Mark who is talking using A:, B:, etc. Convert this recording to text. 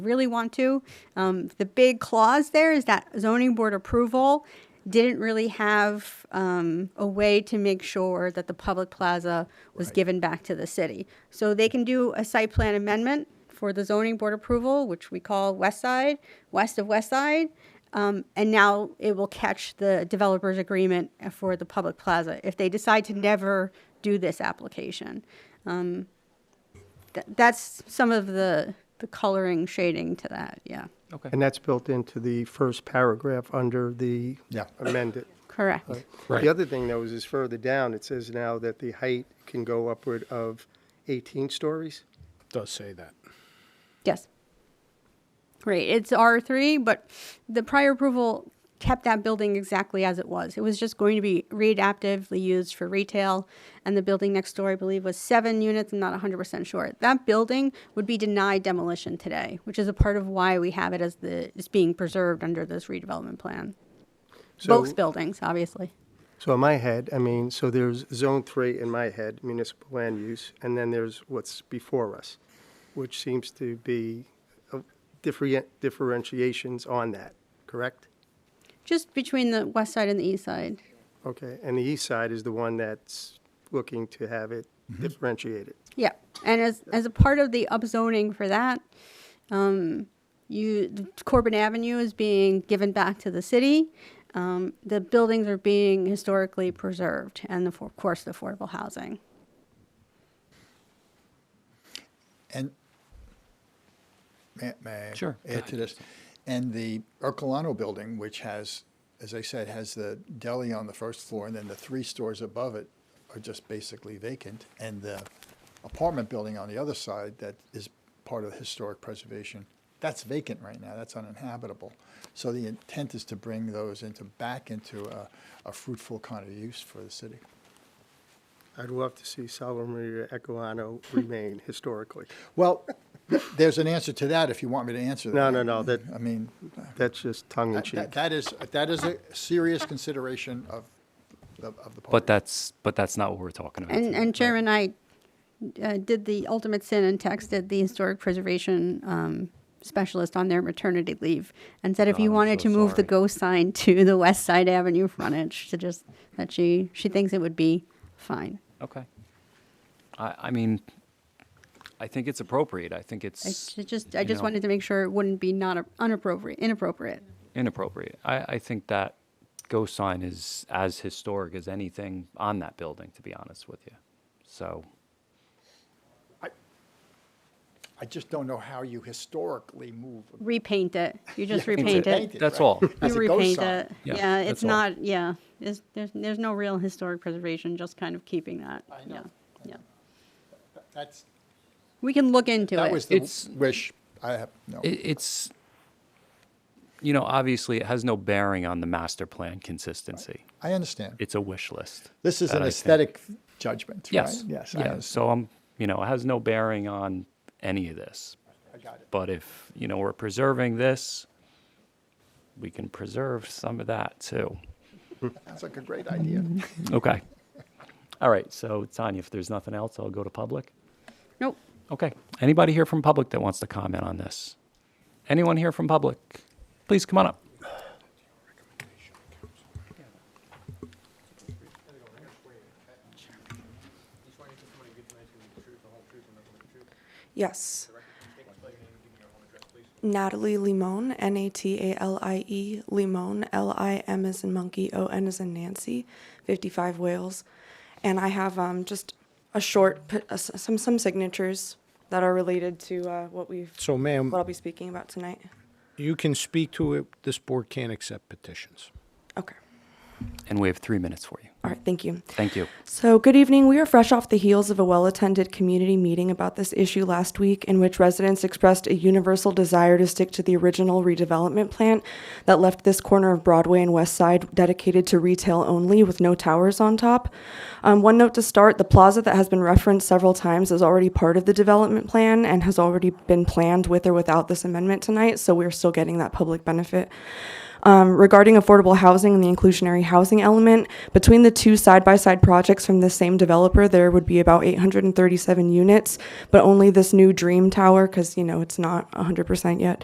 A: really want to. Um, the big clause there is that zoning board approval didn't really have um, a way to make sure that the public plaza was given back to the city. So they can do a site plan amendment for the zoning board approval, which we call West Side, west of West Side. Um, and now it will catch the developer's agreement for the public plaza if they decide to never do this application th- that's some of the the coloring shading to that. Yeah,
B: Okay.
C: And that's built into the first paragraph under the
D: Yeah.
C: amended.
A: correct.
B: Right.
C: The other thing, though, is is further down, it says now that the height can go upward of 18 stories.
D: Does say that.
A: Yes. Right. It's R three, but the prior approval kept that building exactly as it was. It was just going to be readaptively used for retail, and the building next door, I believe, was seven units. I'm not 100 percent sure. That building would be denied demolition today, which is a part of why we have it as the it's being preserved under this redevelopment plan.
C: So-
A: Both buildings, obviously.
C: So in my head, I mean, so there's Zone 3 in my head, municipal land use, and then there's what's before us, which seems to be uh, different- differentiations on that, correct?
A: Just between the west side and the east side.
C: Okay, and the east side is the one that's looking to have it differentiated.
A: Yeah, and as as a part of the upzoning for that, um, you Corbin Avenue is being given back to the city. Um, the buildings are being historically preserved, and the, of course, the affordable housing.
D: And may, may I
B: Sure, go
D: add to this? And the Ercolano building, which has, as I said, has the deli on the first floor, and then the three stores above it are just basically vacant. And the apartment building on the other side that is part of historic preservation, that's vacant right now. That's uninhabitable. So the intent is to bring those into back into a, a fruitful kind of use for the city.
C: I'd love to see Salvo Maria Ecolano remain historically.
D: Well, th- there's an answer to that if you want me to answer that.
C: No, no, no, that-
D: I mean,
C: That's just tongue in
D: that-
C: cheek.
D: that that is, that is a serious consideration of, the- of the party.
B: But that's but that's not what we're talking about.
A: And
B: today,
A: and
B: right?
A: Chairman, I uh, did the ultimate sin and texted the historic preservation um, specialist on their maternity leave and said if
B: Oh,
A: you
B: I'm
A: wanted to
B: so
A: move the
B: sorry.
A: ghost sign to the West Side Avenue frontage to just that she she thinks it would be fine.
B: Okay. I I mean, I think it's appropriate. I think
A: I
B: it's
A: ju- just I
B: you
A: just
B: know,
A: wanted to make sure it wouldn't be not a- unappropriate inappropriate.
B: inappropriate. I I think that ghost sign is as historic as anything on that building. To be honest with you, so
D: I just don't know how you historically move.
A: Repaint it. You just
D: Yeah,
A: repaint it.
D: repaint it.
B: that's
D: right.
B: all.
D: As
A: You
D: a ghost
A: repaint
D: sign.
A: it. Yeah,
B: Yeah,
A: it's
B: that's all.
A: not. Yeah, it's, there's there's no real historic preservation. Just kind of keeping that.
D: I know,
A: Yeah,
D: I
A: yeah.
D: know. That's,
A: We can look into it.
D: that was the
B: It's-
D: wish, I have, no.
B: it, it's you know obviously it has no bearing on the master plan consistency.
D: I understand.
B: It's a wish list.
D: This is
B: that
D: an
B: I think-
D: aesthetic judgment, right?
B: Yes.
D: Yes, I
B: Yeah.
D: understand.
B: So I'm you know it has no bearing on any of this.
D: I got it.
B: But if, you know, we're preserving this, we can preserve some of that too.
D: Sounds like a great idea.
B: Okay. All right, so Tanya, if there's nothing else, I'll go to public.
A: Nope.
B: Okay. Anybody here from public that wants to comment on this? Anyone here from public? Please come on up.
E: Yes. Natalie Limon, N A T A L I E, Limon, L I M as in monkey, O N as in Nancy, 55 Wales. And I have um, just a short, p- uh, s- some, some signatures that are related to uh, what we've,
F: So ma'am,
E: what I'll be speaking about tonight.
F: you can speak to it, this board can't accept petitions.
E: Okay.
B: And we have three minutes for you.
E: All right. Thank you.
B: Thank you.
E: So, good evening. We are fresh off the heels of a well attended community meeting about this issue last week, in which residents expressed a universal desire to stick to the original redevelopment plan that left this corner of Broadway and West Side dedicated to retail only with no towers on top. Um, one note to start the plaza that has been referenced several times is already part of the development plan and has already been planned with or without this amendment tonight, so we're still getting that public benefit. Um, regarding affordable housing and the inclusionary housing element, between the the two side by side projects from the same developer, there would be about 837 units, but only this new Dream Tower, because, you know, it's not 100% yet,